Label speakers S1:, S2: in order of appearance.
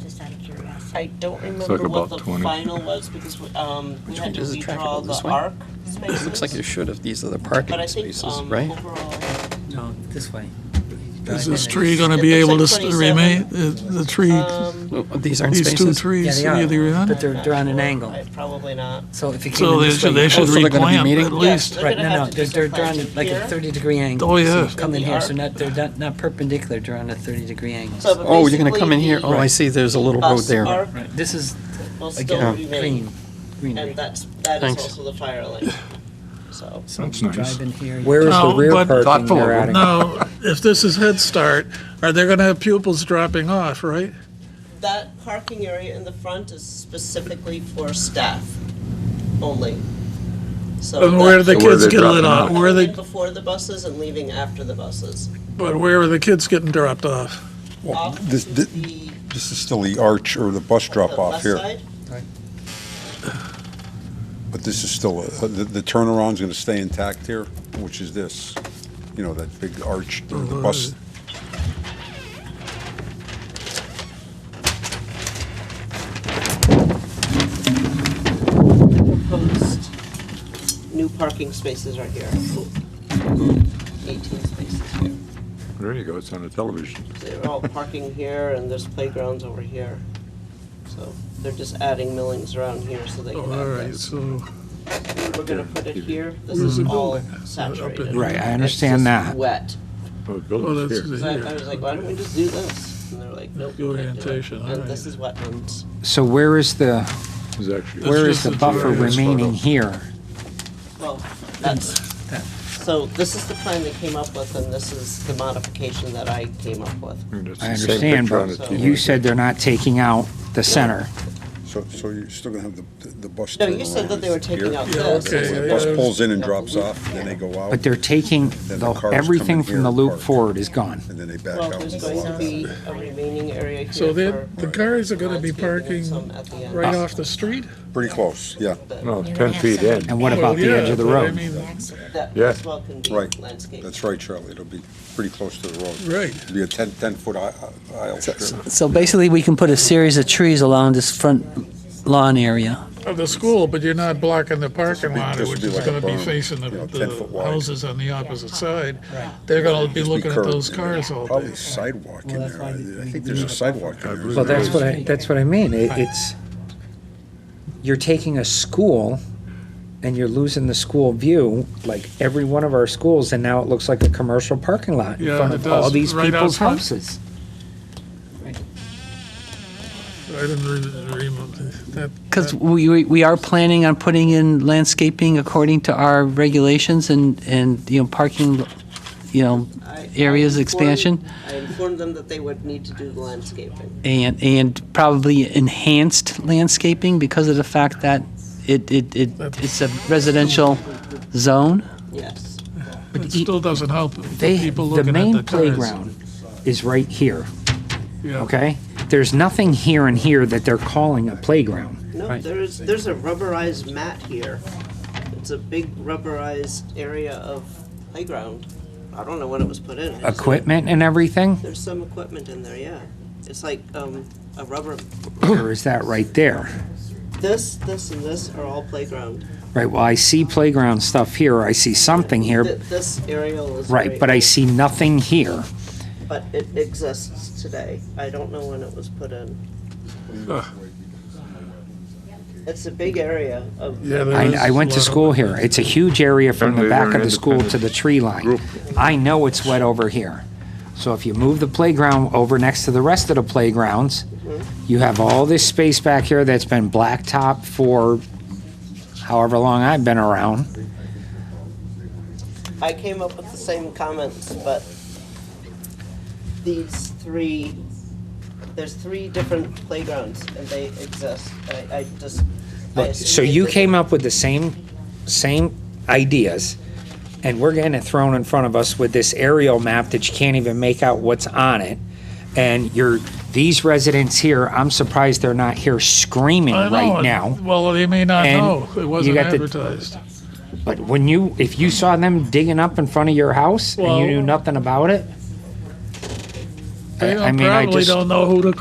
S1: just out of curiosity.
S2: I don't
S3: like
S2: remember what
S3: about
S2: the
S3: 20.
S2: final was because we, um, we
S4: Which
S2: had
S4: one
S2: to
S4: does it track
S2: redraw
S4: about this
S2: the
S4: way?
S2: arc
S4: It
S2: spaces.
S4: looks like it should have, these are the
S2: But I
S4: parking
S2: think,
S4: spaces,
S2: um,
S4: right?
S2: overall,
S5: No, this way.
S6: Is
S5: Right.
S6: this tree going to be
S2: It looks
S6: able to
S2: like
S6: st-
S2: 27.
S6: remain, the the tree,
S2: um,
S4: No, These aren't
S6: these
S4: spaces.
S6: two
S5: Yeah,
S6: trees?
S5: they are, but
S6: are.
S5: they're, they're on an
S2: sure.
S5: angle.
S2: I- Probably not.
S5: So if you came
S6: So
S5: in
S6: they
S5: this way.
S6: should, they should
S4: Oh, so they're gonna be
S6: replant
S4: meeting?
S6: at
S2: Yes,
S6: least.
S2: they're
S5: Right,
S2: gonna
S5: no, no,
S2: have to
S5: they're,
S2: do
S5: they're
S2: some
S5: they're on
S2: planting
S5: like
S2: here.
S5: a thirty degree angle.
S6: Oh,
S5: So
S6: yeah.
S5: you Come in
S2: The
S5: here, so
S2: arc.
S5: not, they're not, not perpendicular, they're on a thirty degree angle.
S2: So, but
S4: Oh, you're gonna
S2: basically
S4: come in here,
S2: the
S4: oh, I see, there's a little road
S2: bus
S4: there.
S2: arc
S5: Right, this is,
S2: will still
S5: again,
S2: remain,
S5: green, greenery.
S2: And that's, that is
S4: Thanks.
S2: also the fire lane, so.
S5: So
S3: That's
S5: you
S3: nice.
S5: Drive in here. you-
S7: Where is
S6: No,
S7: the rear
S6: but-
S7: parking
S3: Thoughtful of
S7: they're
S3: them.
S7: adding?
S6: Now, if this is Head Start, are they going to have pupils dropping off, right?
S2: That parking area in the front is specifically for staff only. So
S6: And where do the
S3: So where are
S6: kids
S3: they
S6: get lit
S3: dropping off?
S6: off? Where are
S2: Coming in
S6: they,
S2: Before the buses and leaving after the buses.
S6: but where are the kids getting dropped off?
S2: Off to
S8: This, this,
S2: the-
S8: this is still the arch or the bus
S2: the
S8: drop off
S2: left
S8: here,
S2: side.
S8: but this is still, a- the, the turnaround's gonna stay intact here, which is this, you know, that big arch, or the bus.
S2: Proposed new parking spaces are here. Eighteen spaces here.
S3: There you go, it's on the television.
S2: They're all parking here and there's playgrounds over here. So they're just adding millings around here so they can
S6: Oh, All
S2: have
S6: right,
S2: this.
S6: so,
S2: We're gonna put it here, this is
S6: Where's the
S2: all
S6: building?
S2: saturated.
S6: Right, I
S2: It's just
S7: understand that.
S2: Wet.
S3: Oh, the
S6: oh,
S3: building's
S6: that's
S3: here.
S2: So I I was like, why don't we just do this? And they're like, nope.
S6: The
S2: we can't do it."
S6: orientation, all
S2: And
S6: right.
S2: this is wetlands.
S7: So where is the,
S3: It's actually.
S7: where
S6: just
S7: is the
S6: a
S7: buffer
S6: two-area
S7: remaining
S3: photo.
S7: here?
S2: Well, that's, so this is the plan they came up with and this is the modification that I came up with.
S3: That's
S7: I
S3: the same
S7: understand,
S3: picture on
S7: but
S3: the TV.
S7: you said they're not taking out the center.
S8: So, so you're still gonna have the, the bus
S2: No,
S8: turnaround.
S2: you said that they were taking
S8: here.
S2: out
S6: Yeah,
S2: this.
S6: okay,
S8: The bus pulls in and drops off, then they go out,
S7: But they're taking,
S8: Then the
S7: the-
S8: cars come in
S7: everything
S8: here
S7: from the
S8: and
S7: loop
S8: park.
S7: forward is gone.
S8: and then they back
S2: Well,
S8: out.
S2: there's
S8: and
S2: going
S8: go
S2: to
S8: out.
S2: be a remaining area here
S6: so
S2: for
S6: the, the cars are going to be
S2: landscaping and
S6: parking
S2: some at the end.
S6: right off the street?
S8: Pretty close, yeah,
S2: That-
S3: No,
S1: You're
S3: 10
S1: gonna have
S3: feet
S1: some-
S3: in.
S7: And what
S6: Well,
S7: about the
S6: yeah,
S7: edge of the
S6: but I
S7: road?
S6: mean,
S2: That
S3: Yeah.
S2: as well can be
S8: Right.
S2: landscaped.
S8: that's right, Charlie, it'll be pretty close to the road.
S6: Right.
S8: It'll Be a ten, ten-foot aisle. here.
S5: So basically, we can put a series of trees along this front lawn area.
S6: Of the school, but you're not blocking the parking
S8: This would be-
S6: lot,
S8: this would
S6: which
S8: be
S6: is
S8: like a
S6: gonna be
S8: berm,
S6: facing the,
S8: you know, 10 foot
S6: the
S8: wide.
S6: houses on the opposite side. They're gonna be
S8: Just be
S6: looking at
S8: curved
S6: those
S8: in there.
S6: cars all
S8: Probably
S6: day.
S8: sidewalk in
S5: Well, that's
S8: there,
S5: why
S8: I- I
S5: we-
S8: think there's a sidewalk in there.
S3: believe
S7: Well,
S3: there
S7: that's what I, that's what I mean. It- It's, you're taking a school and you're losing the school view, like every one of our schools, and now it looks like a commercial parking lot in
S6: Yeah,
S7: front
S6: it
S7: of all
S6: does,
S7: these
S6: right
S7: people's
S6: out front.
S7: houses.
S6: I didn't read the agreement. That-
S5: Because we, we- we are planning on putting in landscaping according to our regulations and, and, you know, parking, you know,
S2: I- I
S5: areas
S2: informed-
S5: expansion.
S2: I informed them that they would need to do the landscaping.
S5: and, and probably enhanced landscaping because of the fact that it, it, it it's a residential zone.
S2: Yes.
S6: that- It still doesn't help the
S7: They,
S6: people
S7: the
S6: looking at the
S7: main
S6: cars.
S7: playground is right here,
S6: Yeah.
S7: okay? There's nothing here and here that they're calling a playground.
S2: No,
S7: Right.
S2: there is, there's a rubberized mat here. It's a big rubberized area of playground. I don't know when it was put in. I just-
S7: Equipment and everything,
S2: There's some equipment in there, yeah. It's like, um, a rubber,
S7: or is that right there?
S2: this, this, and this are all playground.
S7: Right, well, I see playground stuff here, I see something
S2: Th-
S7: here,
S2: This aerial is.
S7: right, but I see nothing here.
S2: But it exists today. I don't know when it was put in. It's a big area of.
S6: Yeah, there is
S7: I, I went
S6: a lot
S7: to
S6: of
S7: school
S6: it.
S7: here, it's a huge area from
S3: And
S7: the
S3: they're
S7: back
S3: an
S7: of the school to the
S3: independent
S7: tree line.
S3: group.
S7: I know it's wet over here. So if you move the playground over next to the rest of the playgrounds, you have all this space back here that's been blacktop for however long I've been around.
S2: I came up with the same comments, but these three, there's three different playgrounds and they exist. I, I just. I
S7: Look,
S2: assume
S7: Uh, so
S2: they
S7: you
S2: did
S7: came
S2: it.
S7: up with the same, same ideas, and we're getting it thrown in front of us with this aerial map that you can't even make out what's on it. And you're, these residents here, I'm surprised they're not here screaming
S6: I know
S7: right
S6: it.
S7: now.
S6: Well, they may not
S7: And
S6: know. It
S7: you
S6: wasn't
S7: got the-
S6: advertised.
S7: But when you, if you saw them digging up in front of your house and
S6: Well-
S7: you knew nothing about it,
S6: They
S7: I- I
S6: don't-
S7: mean, I
S6: probably
S7: just-
S6: don't know who to